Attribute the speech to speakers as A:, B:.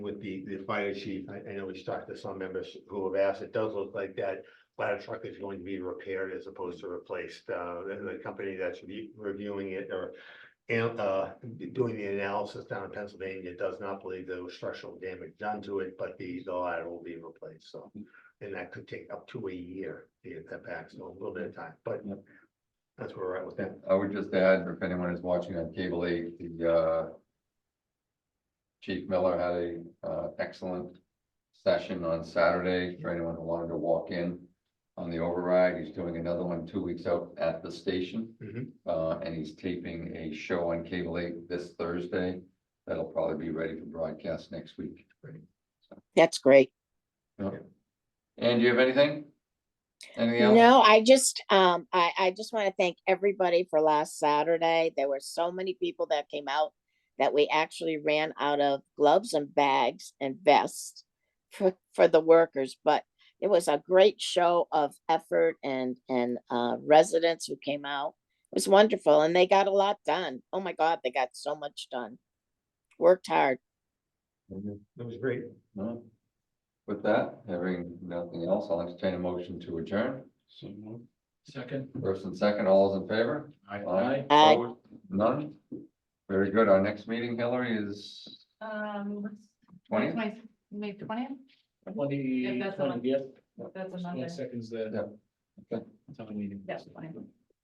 A: with the, the fire chief, I, I know we talked to some members who have asked, it does look like that ladder truck is going to be repaired as opposed to replaced, uh, the, the company that's re- reviewing it or and, uh, doing the analysis down in Pennsylvania does not believe there was structural damage done to it, but the, the ladder will be replaced, so. And that could take up to a year to get that back, so a little bit of time, but
B: Yep.
A: that's where we're at with that.
B: I would just add, if anyone is watching on cable eight, the uh. Chief Miller had a uh excellent session on Saturday for anyone who wanted to walk in. On the override, he's doing another one two weeks out at the station.
A: Mhm.
B: Uh, and he's taping a show on cable eight this Thursday. That'll probably be ready for broadcast next week.
C: That's great.
B: And do you have anything? Anything else?
C: No, I just, um, I, I just want to thank everybody for last Saturday. There were so many people that came out that we actually ran out of gloves and bags and vests for, for the workers, but it was a great show of effort and, and, uh, residents who came out. It was wonderful and they got a lot done. Oh my God, they got so much done. Worked hard.
A: It was great.
B: No. With that, having nothing else, I'll entertain a motion to adjourn.
D: Second.
B: First and second, all is in favor? Aye.
C: Aye.
B: Opposed? None? Very good. Our next meeting, Hillary, is
E: Um, what's-
B: twentieth?
E: May, May twentieth,
D: Twenty,
E: If that's the one.
D: twenty, yeah.
E: that's a
D: Twenty
E: Monday,
D: seconds there.
B: Yeah. Okay.
D: Town meeting.
E: that's fine.